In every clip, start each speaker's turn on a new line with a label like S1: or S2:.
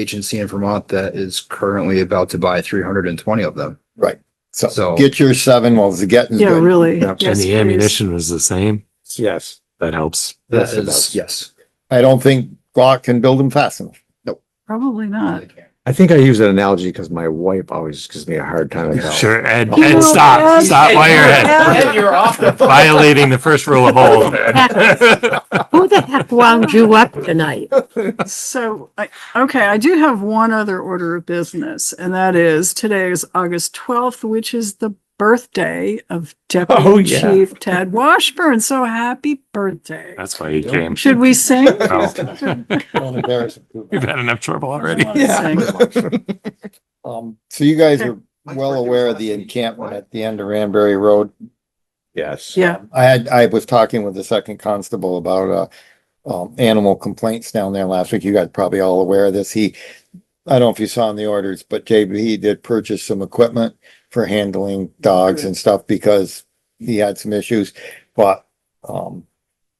S1: agency in Vermont that is currently about to buy three hundred and twenty of them. So-
S2: So get your seven while the getting's
S3: Yeah,
S2: good.
S3: really.
S1: Yeah. And
S3: Yes,
S4: And
S3: please.
S4: the ammunition was the same.
S5: Yes.
S4: That helps.
S1: That
S5: Yes, it
S1: is,
S5: does.
S1: yes.
S2: I don't think Glock can build them fast enough.
S3: Probably not.
S5: I think I use an analogy because my wife always gives me a hard time about.
S4: Sure, Ed,
S5: You
S4: Ed,
S5: know,
S4: stop,
S3: Ed,
S4: stop while you're
S3: Ed,
S4: ahead.
S5: you're off the.
S4: Violating the first rule of old.
S6: Who the heck wound you up tonight?
S3: So, I, okay, I do have one other order of business, and that is today is August twelfth, which is the birthday of
S5: Oh,
S3: Deputy
S5: yeah.
S3: Chief Ted Washburn. So happy birthday.
S4: That's why he came.
S3: Should we sing?
S4: No.
S2: Don't embarrass them.
S4: We've had enough trouble already.
S3: I don't wanna sing.
S5: Yeah.
S2: Um, so you guys
S3: Okay.
S2: are well aware of the encampment at the end of Ranberry Road.
S5: Yes.
S3: Yeah,
S2: I had, I was talking with the second constable about, uh, um, animal complaints down there last week. You guys probably all aware of this. He, I don't know if you saw in the orders, but JB did purchase some equipment for handling dogs and stuff because he had some issues, but, um,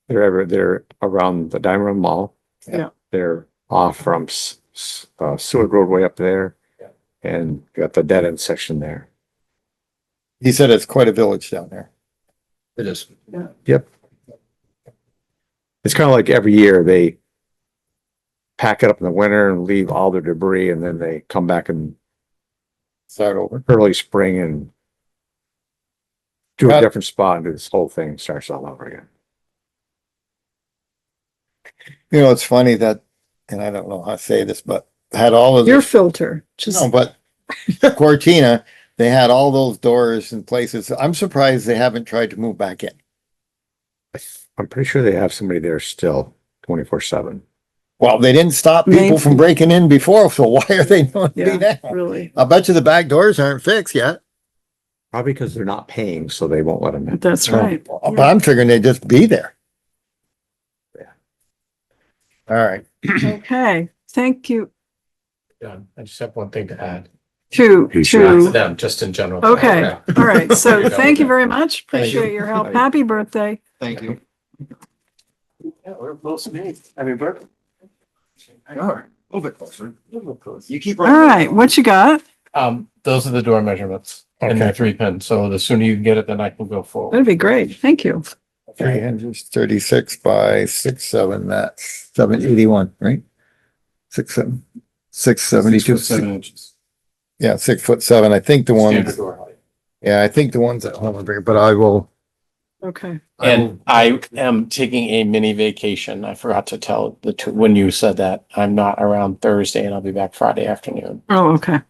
S5: They're ever, they're around the Diamond Mall.
S3: Yeah.
S5: They're off from S- S- uh, Seward Road way up there.
S2: Yeah.
S5: And got the dead end section there.
S2: he said it's quite a village down there.
S1: It is.
S5: It's kind of like every year they pack it up in the winter and leave all their debris and then they come back in
S2: Start over.
S5: early spring and do a
S2: Got-
S5: different spot and this whole thing starts all over again.
S2: You know, it's funny that, and I don't know how to say this, but had all of
S3: your
S2: the,
S3: filter,
S2: no,
S3: just,
S2: but Cortina, they had all those doors and places. I'm surprised they haven't tried to move back in.
S5: I th- I'm pretty sure they have somebody there still twenty-four seven.
S2: Well, they didn't stop people
S3: Maybe.
S2: from breaking in before, so why are they doing it
S3: Yeah.
S2: now?
S3: really,
S2: I bet you the back doors aren't fixed yet.
S5: Probably because they're not paying, so they won't let them in.
S3: that's right.
S2: But I'm figuring they'd just be there.
S5: Yeah.
S2: All right.
S3: Okay, thank you.
S7: done. I just have one thing to add
S3: Two,
S4: Who's
S7: to
S3: two.
S7: them, just in general.
S3: Okay, all right. So thank you very much.
S2: Thank you.
S3: Appreciate your help. Happy birthday.
S1: Thank you.
S7: Yeah, we're close in age. I mean, we're.
S1: A little bit closer.
S7: close.
S1: You keep.
S3: All right, what you got?
S7: Um, those are the door measurements and the three pin. So the sooner you can get it, then I can go forward.
S3: That'd be great. Thank you.
S2: Three hundred thirty-six by six, seven, that's seven eighty-one, right? Six, seven, six seventy-two.
S7: Six foot Seven inches.
S2: Yeah, six foot seven. I think the ones,
S7: Standard door height.
S2: yeah, I think the ones at home are bigger, but I will.
S3: Okay.
S2: I
S7: And I am taking a mini vacation. I forgot to tell the two, when you said that, I'm not around Thursday and I'll be back Friday afternoon.
S3: Oh, okay.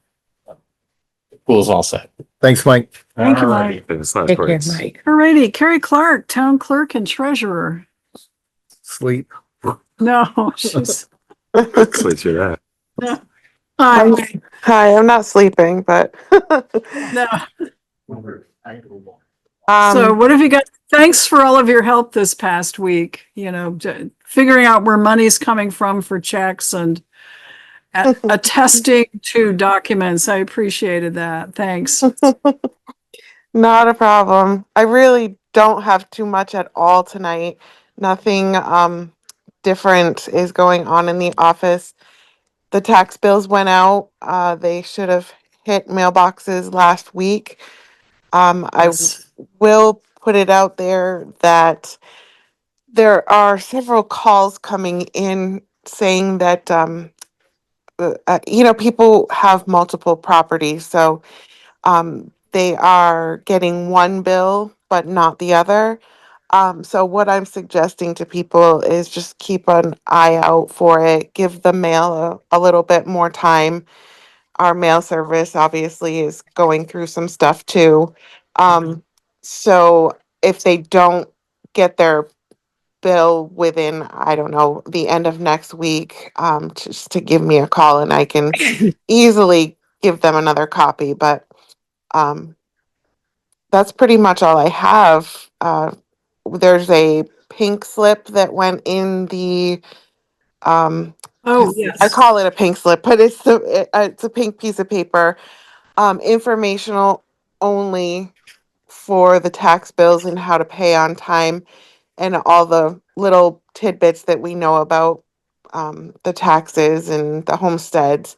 S7: Pool's all set.
S2: Thanks, Mike.
S3: Thank you,
S7: Alrighty.
S3: Mike.
S4: Those last
S6: Take care,
S4: words.
S6: Mike.
S3: Alrighty, Carrie Clark, Town Clerk and Treasurer.
S2: Sleep.
S3: No, she's.
S4: Sleep through that.
S3: Hi.
S8: I'm- Hi, I'm not sleeping, but
S3: No.
S8: um,
S3: So what have you got? Thanks for all of your help this past week, you know, j- figuring out where money's coming from for checks and a- attesting to documents. I appreciated that. Thanks.
S8: not a problem. I really don't have too much at all tonight. Nothing um, different is going on in the office. The tax bills went out. Uh, they should have hit mailboxes last week. Um, I will put it out there that there are several calls coming in saying that, um, uh, uh, you know, people have multiple properties, so, um, they are getting one bill but not the other. Um, so what I'm suggesting to people is just keep an eye out for it, give the mail a, a little bit more time. Our mail service obviously is going through some stuff too. Um, so if they don't get their bill within, I don't know, the end of next week, um, just to give me a call and I can easily give them another copy, but, um, that's pretty much all I have. Uh, there's a pink slip that went in the, um,
S3: Oh,
S8: I
S3: yes.
S8: call it a pink slip, but it's the it- uh, it's a pink piece of paper, um, informational only for the tax bills and how to pay on time, and all the little tidbits that we know about um, the taxes and the homesteads.